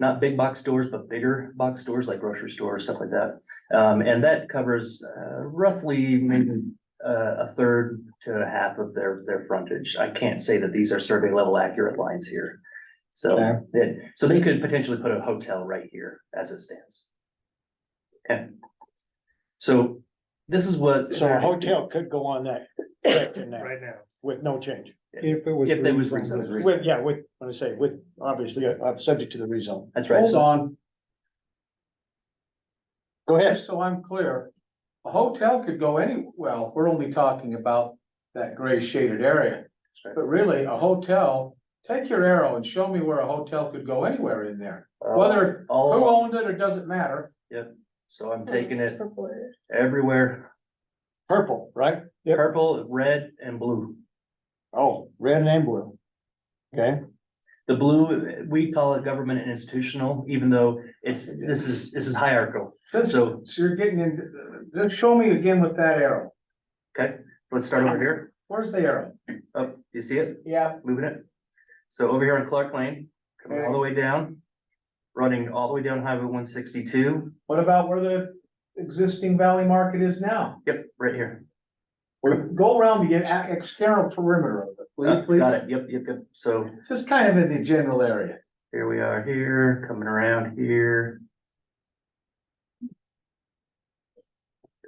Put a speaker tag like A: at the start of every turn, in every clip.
A: not big box stores, but bigger box stores like grocery stores, stuff like that. Um, and that covers uh, roughly maybe uh, a third to a half of their, their frontage. I can't say that these are survey level accurate lines here. So,
B: Okay.
A: yeah, so they could potentially put a hotel right here as it stands. Okay. So this is what.
B: So a hotel could go on that section there
C: right now.
B: with no change.
D: If it was.
A: If there was
D: rezoned.
A: reason.
B: With, yeah, with, when I say with, obviously, uh, subject to the rezone.
A: That's right.
E: Hold
A: So
E: on,
B: Go ahead.
E: just so I'm clear, a hotel could go any, well, we're only talking about that gray shaded area.
A: right.
E: But really, a hotel, take your arrow and show me where a hotel could go anywhere in there,
A: uh,
E: whether who
A: all,
E: owned it or doesn't matter.
A: so I'm taking it everywhere,
B: Purple, right? Yep.
A: purple, red and blue.
B: Oh, red and blue. Okay,
A: The blue, we call it government and institutional, even though it's, this is, this is hierarchical.
E: This, so
A: So-
E: you're getting into, just show me again with that arrow.
A: Let's start over here.
E: Where's the arrow?
A: Up, you see it?
E: Yeah.
A: Moving it. So over here on Clark Lane, coming all the way down, running all the way down Highway one sixty-two.
E: What about where the existing Valley Market is now?
A: Yep, right here.
E: Go around the e- external perimeter of it, will you
A: Uh, Got
E: please?
A: it. Yep, yep, yep. So
E: Just kind of in the general area.
A: Here we are here, coming around here.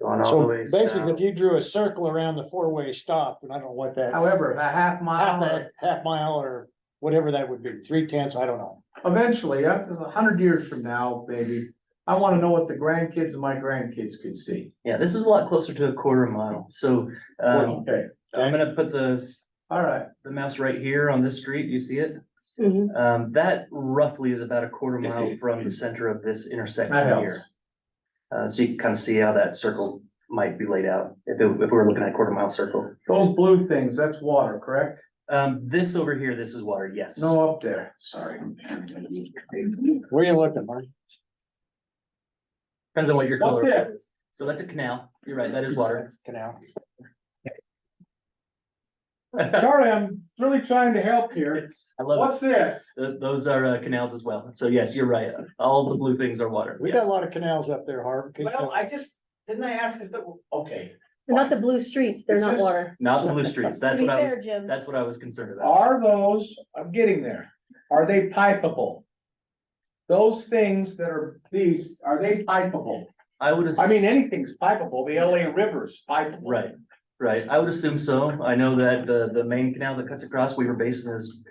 A: Going all the
B: so
A: way
B: basically, if
A: south.
B: you drew a circle around the four-way stop, and I don't know what that.
E: However, a half
B: Half,
E: mile,
B: a-
E: or-
B: half mile or whatever that would be, three tenths, I don't know.
E: eventually, up to a hundred years from now, maybe, I wanna know what the grandkids and my grandkids could see.
A: Yeah, this is a lot closer to a quarter mile, so, um,
E: Okay,
A: I'm gonna put the,
E: all right,
A: the mouse right here on this street, you see it?
F: Mhm.
A: Um, that roughly is about a quarter mile from the center of this
E: that
A: intersection
E: helps.
A: here. Uh, so you can kind of see how that circle might be laid out, if it, if we're looking at a quarter mile circle.
E: Those blue things, that's water, correct?
A: Um, this over here, this is water, yes.
E: No up there, sorry.
B: Where you looking, Marty?
A: Depends on what your
E: What's
A: color
E: this?
A: is. So that's a canal, you're right, that is water.
B: Canal.
E: Charlie, I'm really trying to help here.
A: I love it.
E: this?
A: Th- those are uh, canals as well. So yes, you're right. All the blue things are water.
B: We got a
A: Yes.
B: lot of canals up there, Harv. Keep going.
E: just, didn't I ask if the, okay.
F: Not the blue streets, they're
E: It's
F: not
E: just-
F: water.
A: Not the blue streets.
F: To
A: That's
F: be
A: what I was,
F: fair, Jim,
A: that's what I was concerned about.
C: Are those, I'm getting there, are they pipeable? Those things that are these, are they pipeable?
A: I would. ass-
C: I mean, anything's pipeable, the LA River's pipeable.
A: Right, right. I would assume so. I know that the, the main canal that cuts across Weaver Basin is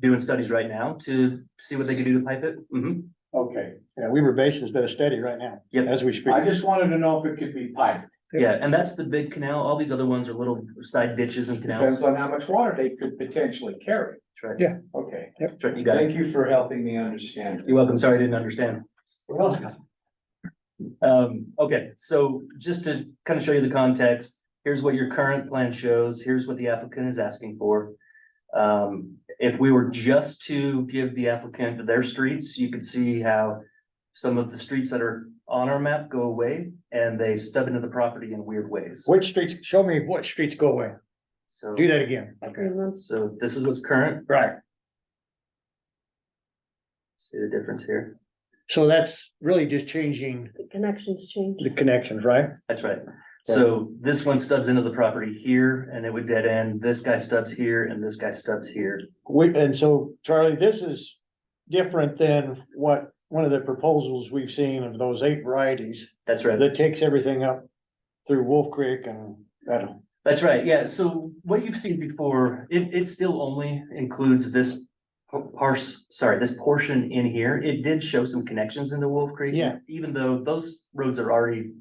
A: doing studies right now to see what they can do to pipe it. hmm
E: Okay,
B: Yeah, Weaver Basin's got a study right now,
A: Yep.
B: as we speak.
E: I just wanted to know if it could be piped,
A: Yeah, and that's the big canal. All these other ones are little side ditches and canals.
C: Depends on how much water they could potentially carry.
A: That's right.
B: Yeah.
C: Okay,
A: That's right. You got it.
C: thank you for helping me understand.
A: You're welcome. Sorry, I didn't understand.
C: Well,
A: Um, okay, so just to kind of show you the context, here's what your current plan shows, here's what the applicant is asking for. Um, if we were just to give the applicant their streets, you could see how some of the streets that are on our map go away and they stub into the property in weird ways.
B: Which streets, show me what streets go away.
A: So,
B: Do that again.
F: three months.
A: so this is what's current.
B: Right.
A: See the difference here?
B: So that's really just changing
F: The connections change.
B: the connections, right?
A: That's right. So this one stubs into the property here and it would dead end. This guy stubs here and this guy stubs here.
B: We, and so Charlie, this is different than what, one of the proposals we've seen of those eight varieties
A: That's right.
B: that takes everything up through Wolf Creek and that.
A: That's right, yeah, so what you've seen before, it, it still only includes this parse, sorry, this portion in here, it did show some connections into Wolf Creek.
B: Yeah.
A: Even though those roads are already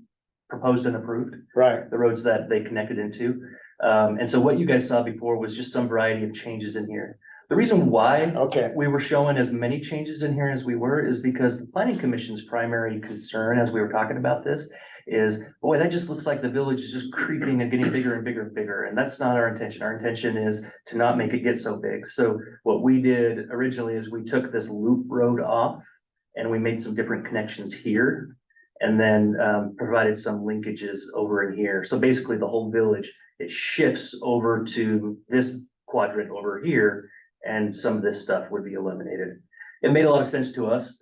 A: proposed and approved,
B: Right.
A: the roads that they connected into. Um, and so what you guys saw before was just some variety of changes in here. The reason why
B: Okay,
A: we were showing as many changes in here as we were is because the planning commission's primary concern as we were talking about this is, boy, that just looks like the village is just creeping and getting bigger and bigger and bigger. And that's not our intention. Our intention is to not make it get so big. So what we did originally is we took this loop road off and we made some different connections here and then um, provided some linkages over in here. So basically the whole village, it shifts over to this quadrant over here and some of this stuff would be eliminated. It made a lot of sense to us